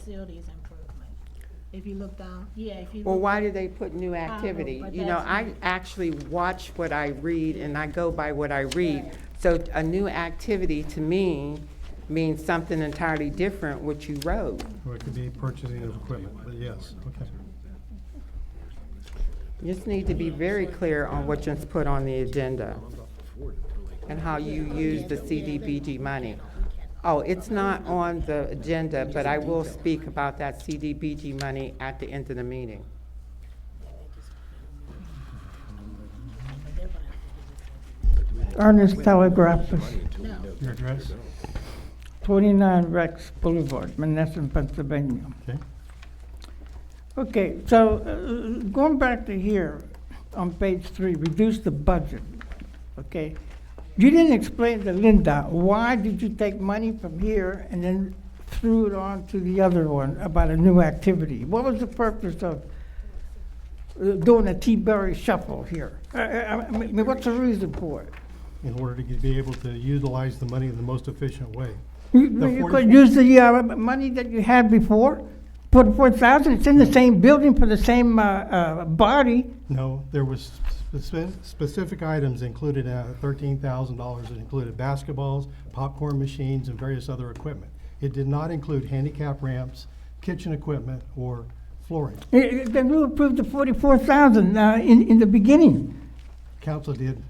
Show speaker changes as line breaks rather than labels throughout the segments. facilities improvement. If you look down, yeah, if you.
Well,
look-
why do they put new
know,
activity?
Oh, but
You know,
that's
I actually watch what I read and I go by what I read. So a new activity to me means something entirely different what you wrote.
Or it could be purchasing of equipment, but yes, okay.
You just need to be very clear on what you put on the agenda and how you use the CDBG money. Oh, it's not on the agenda, but I will speak about that CDBG money at the end of the meeting.
Ernest Telegraphus,
Your address,
29 Rex Boulevard, Menneson, Pennsylvania.
okay?
Okay, so uh, going back to here, on page three, reduce the budget, okay? You didn't explain to Linda, why did you take money from here and then threw it on to the other one about a new activity? What was the purpose of uh, doing a T-Berry shuffle here? I- I I mean, what's the reason for it?
In order to get- be able to utilize the money in the most efficient way.
You
The
you
44
could use the uh, money that you had before, forty-four thousand, it's
Hmm.
in the same building for the same uh, uh, body.
No, there was spe- specific items included, uh, thirteen thousand dollars, it included basketballs, popcorn machines, and various other equipment. It did not include handicap ramps, kitchen equipment, or flooring.
I- I- Then we approved the forty-four thousand uh, in, in the beginning,
Council did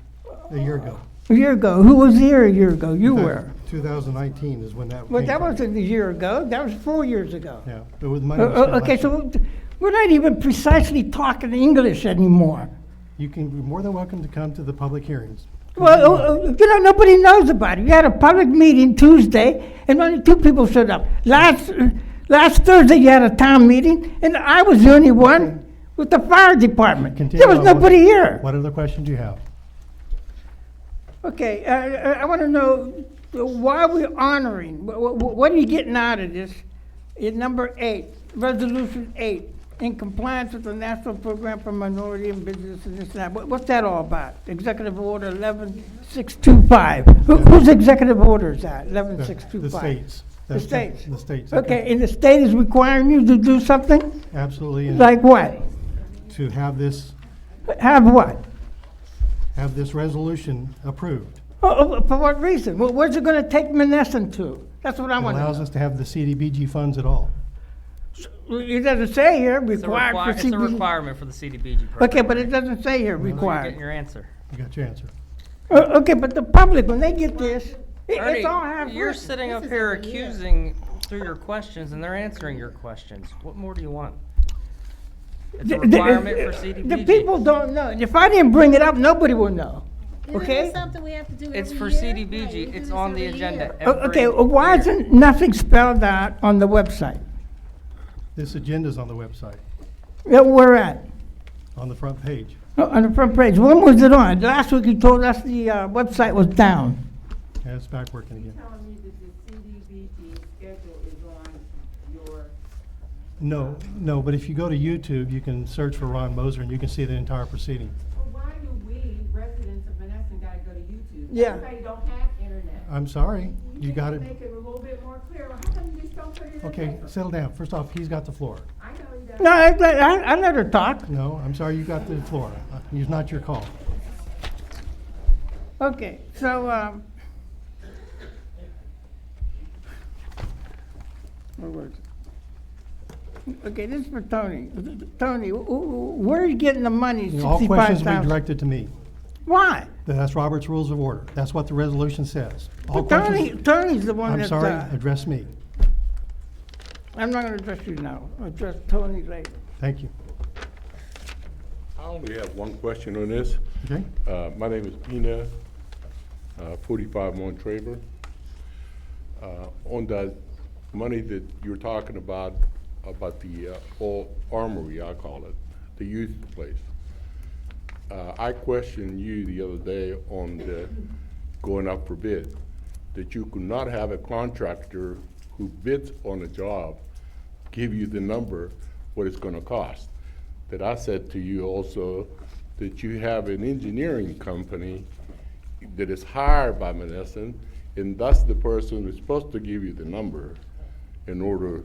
a year ago.
a year ago. Who was here a year ago? You were.
Two thousand nineteen is when that came.
Well, that
from.
wasn't a year ago, that was four years ago.
Yeah, but with money.
Uh,
was spent
uh, Okay,
last year.
so we're not even precisely talking English anymore.
You can, you're more than welcome to come to the public hearings.
Well, uh, uh, you know, nobody knows about it. We had a public meeting Tuesday, and only two people showed up. Last, uh, last Thursday, you had a town meeting, and I was the only one with the fire department.
Continue
There was
on. What-
nobody here.
What other question do you have?
Okay, uh, uh, I want to know uh, why we're honoring, wh- wh- what are you getting out of this? In number eight, resolution eight, in compliance with the National Program for Minority and Business and this and that. What- What's that all about? Executive Order eleven six two five. Whose executive order is that, eleven
The-
six two
The
five?
states.
The states.
The states.
Okay, and the state is requiring you to do something?
Absolutely, and
Like what?
to have this,
Have what?
have this resolution approved.
Oh, oh, For what reason? Wh- Where's it going to take Menneson to? That's what I
It
want to know.
allows us to have the CDBG funds at all.
Well, It doesn't say here
It's a
required
requir-
for
It's a
CBG.
requirement for the CDBG program.
Okay, but it doesn't say here
You're getting
required.
your answer.
You got your answer.
Uh, Okay, but the public, when they get this, it- it's all half
Ernie, you're
written.
sitting up here accusing through your questions and they're answering your questions. What more do you want? It's a
The- the-
requirement for
The
CDBG.
people don't know. If I didn't bring it up, nobody will know, Uh,
Isn't
okay?
this something we have to do
It's
every
for
year? Right, we
CDBG.
do
It's
this
on the
every
agenda
year.
Uh,
every
Okay, uh, why
year.
isn't nothing spelled out on the website
This agenda's on the website,
that we're Uh, at,
on the front page.
Uh, on the front page? When was it on? Last week you told us the uh, website was down.
Yeah, it's back working again.
telling me that the CDBG schedule is on your
No, no, but if you go to YouTube, you can search for Ron Moser and you can see the entire proceeding.
Well, why do we, residents of Menneson, gotta go to YouTube?
Yeah.
Everybody don't have internet.
I'm sorry, you got it.
can Make it a little bit more clear, how come you just don't put it in? the
Okay,
paper?
settle down. First off, he's got the floor.
I know he does.
No, I, I I let her talk.
No, I'm sorry, you got the floor. Uh, It's not your call.
Okay, so, um, where was it? Okay, this is for Tony. Tony, wh- wh- where are you getting the money,
All
sixty-five
questions will be
thousand?
directed to me.
Why?
That's Robert's Rules of Order. That's what the resolution says. All
But Tony,
questions,
Tony's the one
I'm
that's,
sorry,
uh,
address me.
I'm not gonna address you now, I'll address Tony later.
Thank you.
I only have one question on this.
Okay?
Uh, My name is Pina, uh, 45 Montraver. Uh, On the money that you're talking about, about the uh, old armory, I call it, the youth place. Uh, I questioned you the other day on the going up for bid, that you could not have a contractor who bids on a job give you the number, what it's gonna cost. That I said to you also, that you have an engineering company that is hired by Menneson, and that's the person who's supposed to give you the number in order